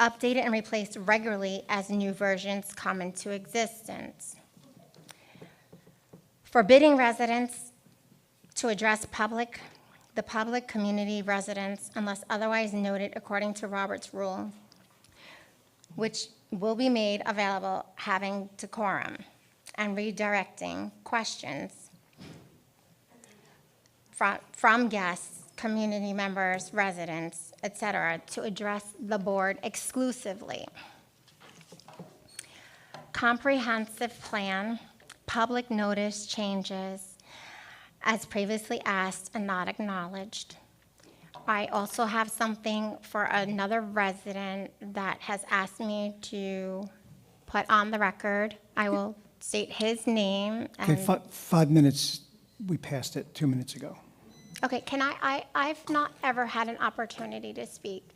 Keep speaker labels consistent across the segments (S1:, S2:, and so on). S1: updated and replaced regularly as new versions come into existence. Forbidding residents to address public, the public community residents unless otherwise noted according to Robert's rule, which will be made available having decorum and redirecting questions from, from guests, community members, residents, et cetera, to address the board exclusively. Comprehensive plan, public notice changes, as previously asked and not acknowledged. I also have something for another resident that has asked me to put on the record. I will state his name
S2: Okay,
S1: and.
S2: fi- five minutes, we passed it two minutes ago.
S1: Okay, can I, I, I've not ever had an opportunity to speak.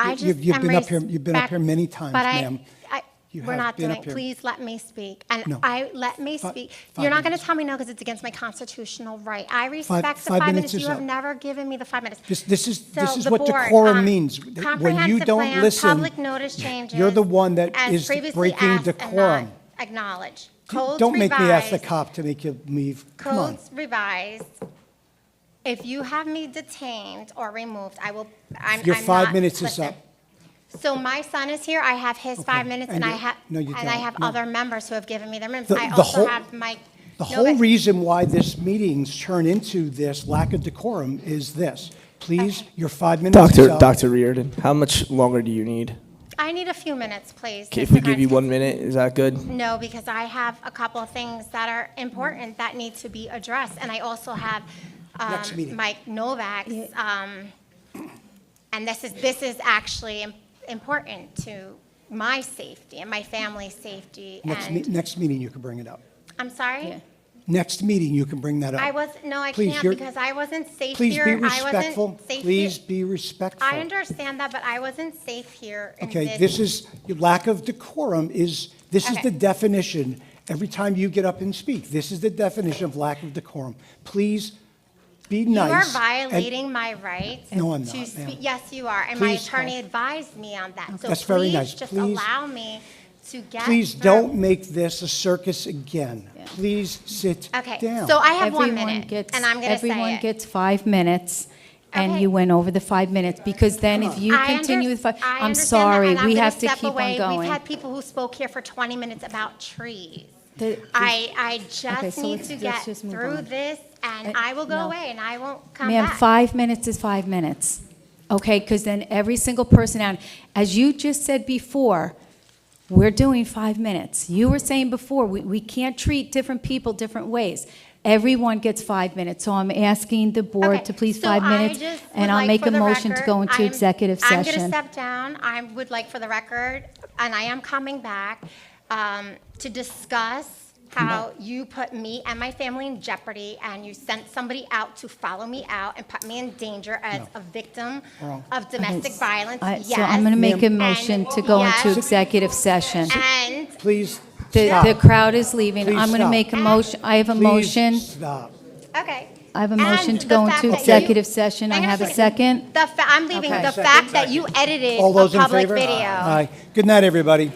S1: I
S2: You've-
S1: just
S2: you've
S1: am
S2: been up here- you've been up here
S1: respect-
S2: many times,
S1: but I-
S2: ma'am.
S1: I-
S2: You
S1: We're
S2: have
S1: not
S2: been
S1: doing,
S2: up here.
S1: please let me speak. And
S2: No.
S1: I, let me
S2: Fi-
S1: speak.
S2: five
S1: You're not gonna
S2: minutes.
S1: tell me no because it's against my constitutional right. I respect the
S2: five
S1: five
S2: minutes
S1: minutes.
S2: is
S1: You have
S2: up.
S1: never given me the five minutes.
S2: This- this is- this
S1: So
S2: is
S1: the
S2: what
S1: board,
S2: decorum
S1: um,
S2: means. When you
S1: comprehensive
S2: don't
S1: plan,
S2: listen,
S1: Public notice changes.
S2: you're the one that
S1: as
S2: is
S1: previously
S2: breaking
S1: asked and
S2: decorum.
S1: not Acknowledged. Codes
S2: Don't make me ask the
S1: revised.
S2: cop to make you leave. Come on.
S1: Codes revised. If you have me detained or removed, I will, I'm,
S2: Your
S1: I'm
S2: five
S1: not-
S2: minutes is
S1: listen.
S2: up.
S1: So my son is here, I have his five minutes, and
S2: and
S1: I
S2: you-
S1: have,
S2: no, you
S1: and I
S2: don't.
S1: have
S2: No.
S1: other members who have given me their minutes.
S2: The-
S1: I
S2: the
S1: also
S2: whole-
S1: have my. no,
S2: The whole
S1: but-
S2: reason why this meetings turn into this lack of decorum is this. Please, your five minutes is
S3: Doctor,
S2: up.
S3: Doctor Reardon, how much longer do you need?
S1: I need a few minutes, please.
S3: If
S1: Mr.
S3: we give you
S1: Gonskis.
S3: one minute, is that good?
S1: No, because I have a couple of things that are important that need to be addressed, and I also have
S2: Next
S1: um,
S2: meeting.
S1: Mike Novak's, um, and this is, this is actually im- important to my safety and my family's safety,
S2: Next, me-
S1: and,
S2: next meeting, you can bring it up.
S1: I'm sorry?
S2: Next meeting, you can bring that up.
S1: I was, no, I
S2: Please,
S1: can't,
S2: you're-
S1: because I wasn't safe
S2: Please
S1: here.
S2: be
S1: I wasn't
S2: respectful.
S1: safe
S2: Please
S1: here.
S2: be respectful.
S1: I understand that, but I wasn't safe here in
S2: Okay, this is, your lack of decorum is, this is
S1: Okay.
S2: the definition, every time you get up and speak, this is the definition of lack of decorum. Please be
S1: You are
S2: nice. and-
S1: violating my rights.
S2: No, I'm
S1: to
S2: not,
S1: speak-
S2: ma'am.
S1: Yes, you are, and my
S2: Please
S1: attorney
S2: help.
S1: advised me on that. So
S2: That's very nice.
S1: please just
S2: Please-
S1: allow me to get
S2: Please
S1: through.
S2: don't make this a circus again. Please sit down.
S1: Okay, so I have one
S4: Everyone
S1: minute,
S4: gets-
S1: and I'm going to
S4: Everyone
S1: say it.
S4: gets five minutes, and
S1: Okay.
S4: you went over the five minutes, because then if you
S1: I
S4: continue with
S1: under-
S4: five,
S1: I
S4: I'm
S1: understand that,
S4: sorry,
S1: and I'm
S4: we
S1: gonna
S4: have to
S1: step
S4: keep
S1: away.
S4: on going.
S1: We've had people who spoke here for 20 minutes about trees.
S4: The-
S1: I, I
S4: Okay,
S1: just
S4: so
S1: need
S4: let's-
S1: to
S4: let's
S1: get
S4: just move
S1: through
S4: on.
S1: this, and
S4: Uh,
S1: I will go
S4: no.
S1: away, and I won't come
S4: Ma'am,
S1: back.
S4: five minutes is five minutes, okay? Because then every single person out, as you just said before, we're doing five minutes. You were saying before, we, we can't treat different people different ways. Everyone gets five minutes, so I'm asking the board
S1: Okay,
S4: to please
S1: so
S4: five
S1: I
S4: minutes,
S1: just would
S4: and I'll
S1: like
S4: make
S1: for
S4: a
S1: the
S4: motion to go
S1: record-
S4: into
S1: I'm-
S4: executive session.
S1: I'm going to step down. I would like for the record, and I am coming back, um, to discuss how you put me and my family in jeopardy, and you sent somebody out to follow me out and put me in danger as a victim of domestic violence,
S4: I-
S1: yes.
S4: So I'm going to make a
S2: Ma'am.
S4: motion
S1: And-
S4: to go into
S1: yes.
S4: executive session.
S1: And
S2: Please
S4: The,
S2: stop.
S4: the crowd is leaving.
S2: Please
S4: I'm going to
S2: stop.
S4: make a motion, I have a
S2: Please
S4: motion.
S2: stop.
S1: Okay.
S4: I have a motion
S1: And
S4: to go
S1: the fact
S4: into
S1: that
S4: executive
S1: you-
S4: session. I
S1: Hang on
S4: have a second.
S1: The fa- I'm leaving
S4: Okay.
S1: the fact that you edited
S2: All
S1: a
S2: those in
S1: public
S2: favor?
S1: video.
S2: Aye. Good night, everybody.